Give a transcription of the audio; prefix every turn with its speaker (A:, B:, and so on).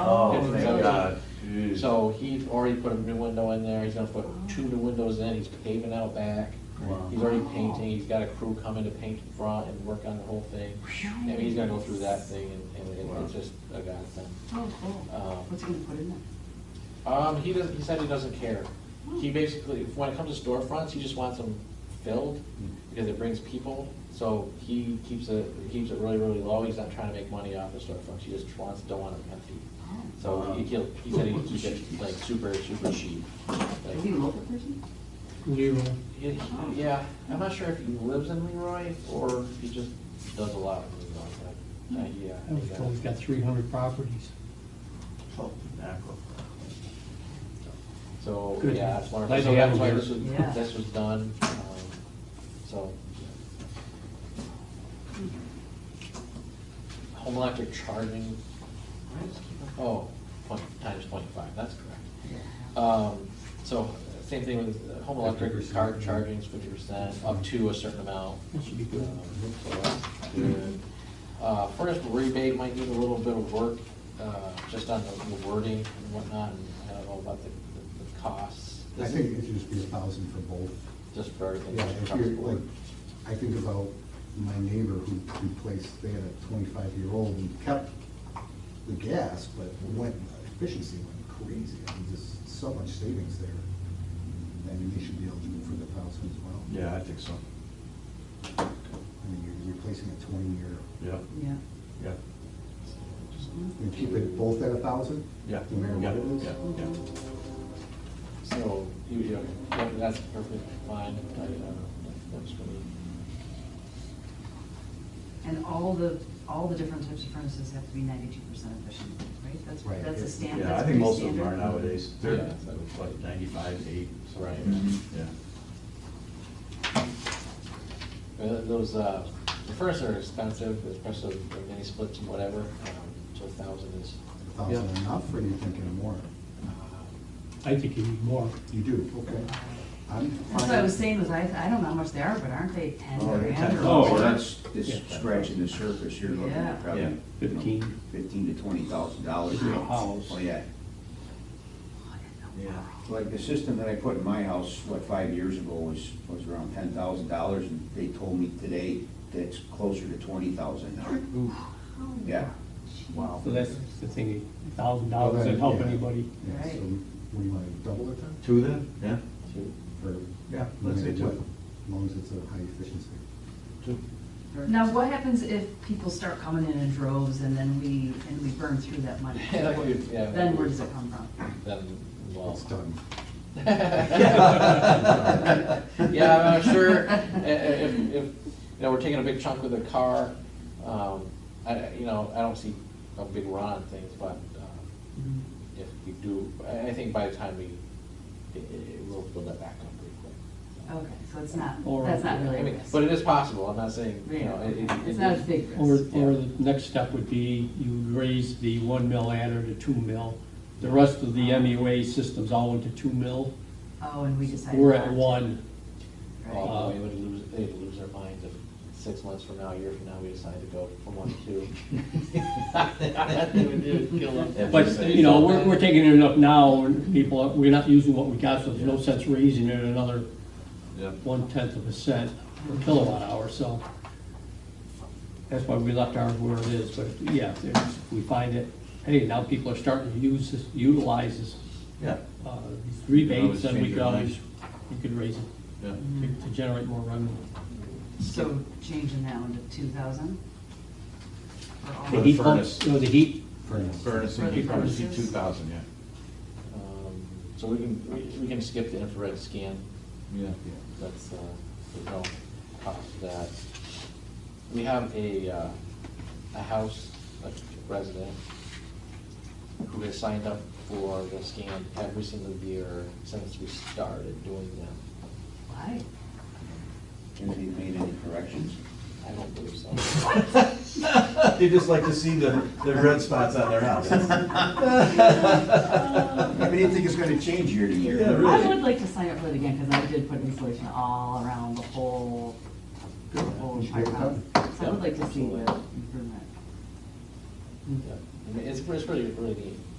A: Oh,
B: Different
A: thank
B: windows.
A: God. Jeez.
B: So he's already put a new window in there, he's gonna put two new windows in, he's paving out back.
A: Wow.
B: He's already painting, he's got a crew coming to paint the front and work on the whole thing. I mean, he's gonna go through that thing and, and it- it's
A: Wow.
B: just a godsend.
C: Oh, cool.
B: Um,
C: What's he gonna put in there?
B: Um, he does, he said he doesn't care. He basically, when it comes to storefronts, he just wants them filled
A: Hmm.
B: because it brings people. So he keeps it, keeps it really, really low. He's not trying to make money off the storefronts. He just wants, don't want them empty. So he, he'll- he said he'd keep it like super, super cheap.
C: Is he a
B: Like,
C: local person?
D: Leroy.
B: he- Yeah, I'm not sure if he lives in Leroy or if he just does a lot in Leroy, but, uh, yeah. I
D: I was
B: think
D: told he's
B: that's-
D: got three hundred properties.
A: Oh, mackerel.
B: So,
D: Good.
B: yeah, that's wonderful.
D: Glad
B: So
D: you
B: that's
D: have
B: why
D: them
B: this was,
C: here. Yeah.
B: this was done, um, so. Home electric charging, why does it keep on- oh, point, times twenty-five, that's correct. Um, so, same thing with uh, home electric,
E: 50%.
B: car charging is fifty percent, up to a certain amount.
D: That should be good.
B: Um, so that's good. Uh, furnace rebate might need a little bit of work, uh, just on the the wording and whatnot, and I don't know about the, the- the costs.
F: I
B: This
F: think
B: is
F: it should just be a thousand for both.
B: Just for everything.
F: Yeah, if
B: across the
F: you're, like,
B: board.
F: I think about my neighbor who replaced, they had a twenty-five-year-old and kept the gas, but went, efficiency went crazy. I mean, just so much savings there. I mean, they should be eligible for the thousand as well.
A: Yeah, I think so.
F: I mean, you're replacing a twenty-year,
A: Yeah,
C: Yeah.
A: yeah,
F: you keep it both at a thousand?
A: yeah.
F: No matter
A: yeah,
F: what it is?
A: yeah, yeah.
B: So, you, you, yeah, that's perfectly fine, I, uh, that works for me.
C: And all the, all the different types of furnaces have to be ninety-two percent efficient, right? That's,
F: Right.
C: that's a standard,
A: Yeah,
C: that's
A: I think
C: pretty
A: most of them are
C: standard.
A: nowadays. They're,
B: Yeah.
A: what, ninety-five, eight, so.
B: Right.
A: Yeah.
B: Uh, Those, uh, the furnaces are expensive, especially the mini splits and whatever, um, so a thousand is,
F: A thousand enough, or do you think any more?
B: uh,
D: I think you need more.
F: You do, okay. I'm
C: That's what I was saying, was I, I don't know how much they are, but aren't they ten
A: Oh, they're
C: grand
A: 10.
C: or?
G: Oh,
C: more?
G: that's, that's
D: Yeah.
G: scratching the surface, you're looking
C: Yeah.
G: at probably.
A: Yeah.
G: you know,
D: Fifteen.
G: Fifteen to twenty thousand dollars.
D: For a house.
G: Oh, yeah.
A: Yeah.
G: Like the system that I put in my house, what, five years ago was, was around ten thousand dollars, and they told me today that's closer to twenty thousand now. Yeah. Wow.
D: So that's the thing, a thousand dollars doesn't help
F: Yeah.
D: anybody.
F: Yeah, so
C: Right.
F: what do you want to double it then?
A: Two then? Yeah.
B: two.
F: Or-
A: Yeah, let's say
F: I mean, what-
A: two.
F: As long as it's a high efficiency.
A: Two.
C: Now, what happens if people start coming in in droves and then we, and we burn through that money?
B: Like we- yeah.
C: Then where does it come from?
B: Then, well.
F: It's done.
B: Yeah, I'm sure, i- i- if, if, you know, we're taking a big chunk of the car, um, I, I- you know, I don't see a big run on things, but, um,
C: Mm-hmm.
B: if we do, I, I think by the time we, it, it will build that back up pretty quick.
C: Okay, so it's not,
D: Or-
C: that's not really
B: I
C: a
B: mean,
C: risk.
B: but it is possible, I'm not saying, you know, it, it.
C: Yeah,
B: it-
C: It's not a big
D: Or,
C: risk.
D: or the next step would be you raise the one mil adder to two mil. The rest of the MUA systems all went to two mil.
C: Oh, and we decided.
D: We're at
C: not to,
D: one.
C: right?
B: Oh, they would lose, they'd lose their minds if six months from now, a year from now, we decide to go from one to two. They would- they would kill them.
D: But, you know, we're, we're taking it up now, and people, are- we're not using what we got, so there's no sense raising it another
A: Yeah.
D: one-tenth of a cent per kilowatt hour, so. That's why we left ours where it is, but yeah, if there's- we find it, hey, now people are starting to use this, utilize this,
A: Yeah,
D: uh, these
A: Always
D: rebates, then we
A: change
D: could
A: your
D: always,
A: mind.
D: we could raise it
A: yeah.
D: to- to generate more revenue.
C: So changing that one to two thousand?
A: For
D: The
A: the
D: heat pump,
A: furnace.
D: you know, the heat,
F: Furnace.
A: Furnace and
C: For the
A: heat furnace,
C: furnaces?
A: two thousand, yeah.
B: Um, So we can, we- we can skip the infrared scan,
A: Yeah.
B: that's, uh, there's no cost to that. We have a, uh, a house, a resident, who has signed up for the scan every single year since we started doing them.
C: Why?
G: And they made any corrections?
B: I don't believe so.
A: They just like to see the, the red spots on their house.
G: I mean, I think it's gonna change year to year.
A: Yeah, really.
C: I would like to sign up for it again, because I did put insulation all around the whole, the whole
F: You should get it
C: entire house.
F: done.
C: So I would like to see
B: Yeah,
C: the
B: absolutely.
C: improvement.
B: Yeah. It's, it's really, really neat.